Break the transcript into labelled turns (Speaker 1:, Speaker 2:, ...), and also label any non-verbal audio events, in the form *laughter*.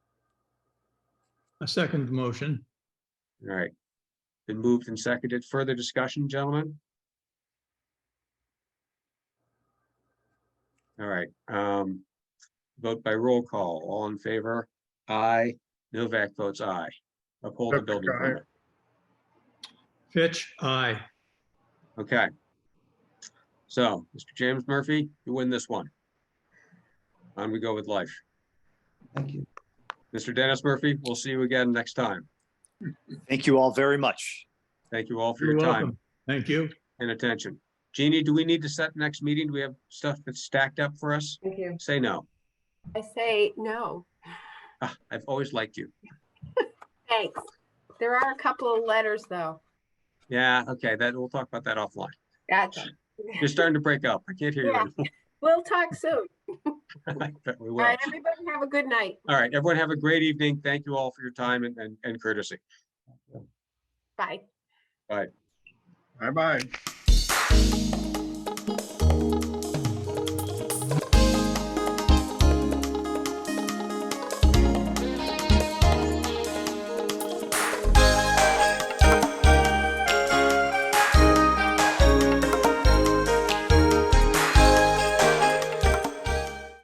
Speaker 1: I second the motion.
Speaker 2: All right. Been moved and seconded. Further discussion, gentlemen? All right, um, vote by roll call. All in favor? Aye. Novak votes aye. Uphold the
Speaker 3: Novak,
Speaker 2: building
Speaker 3: aye.
Speaker 2: permit.
Speaker 1: Fitch, aye.
Speaker 2: Okay. So, Mr. James Murphy, you win this one. On we go with life.
Speaker 4: Thank you.
Speaker 2: Mr. Dennis Murphy, we'll see you again next time.
Speaker 5: Thank you all very much.
Speaker 2: Thank you all for
Speaker 1: You're
Speaker 2: your time.
Speaker 1: welcome. Thank you.
Speaker 2: and attention. Jeannie, do we need to set the next meeting? Do we have stuff that's stacked up for us?
Speaker 6: Thank you.
Speaker 2: Say no.
Speaker 6: I say no,
Speaker 2: Ah, I've always liked you.
Speaker 6: thanks. There are a couple of letters, though.
Speaker 2: Yeah, okay, that, we'll talk about that offline.
Speaker 6: Gotcha.
Speaker 2: You're starting to break up. I can't hear you. *laughs*
Speaker 6: Yeah.
Speaker 2: anymore.
Speaker 6: We'll talk soon.
Speaker 2: I bet we
Speaker 6: All
Speaker 2: will.
Speaker 6: right, everybody have a good night.
Speaker 2: All right, everyone have a great evening. Thank you all for your time and, and- and courtesy.
Speaker 6: Bye.
Speaker 3: Bye-bye.